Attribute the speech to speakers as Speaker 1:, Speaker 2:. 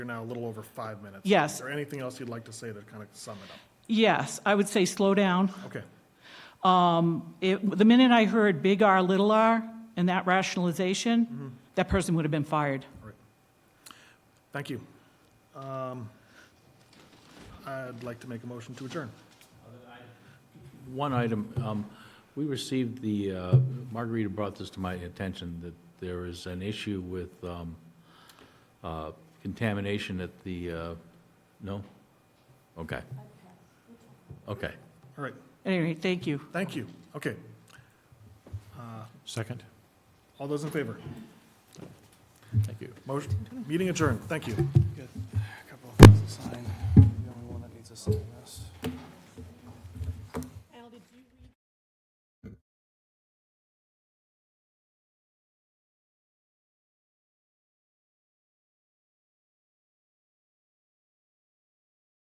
Speaker 1: You're now a little over five minutes.
Speaker 2: Yes.
Speaker 1: Is there anything else you'd like to say to kind of sum it up?
Speaker 2: Yes, I would say slow down.
Speaker 1: Okay,
Speaker 2: It- The minute I heard big R, little r, and that rationalization, that person would have been fired.
Speaker 1: all right. Thank you. Um, I'd like to make a motion to adjourn.
Speaker 3: One item, um, we received the, uh, Margarita brought this to my attention, that there is an issue with um, uh, contamination at the, uh, no? Okay. Okay.
Speaker 1: All right,
Speaker 2: Anyway, thank you.
Speaker 1: thank you. Okay, Uh,
Speaker 4: Second.
Speaker 1: all those in favor?
Speaker 4: Thank you.
Speaker 1: Motion, meeting adjourned, thank you.
Speaker 5: Got a couple of things to sign. The only one that needs a sign.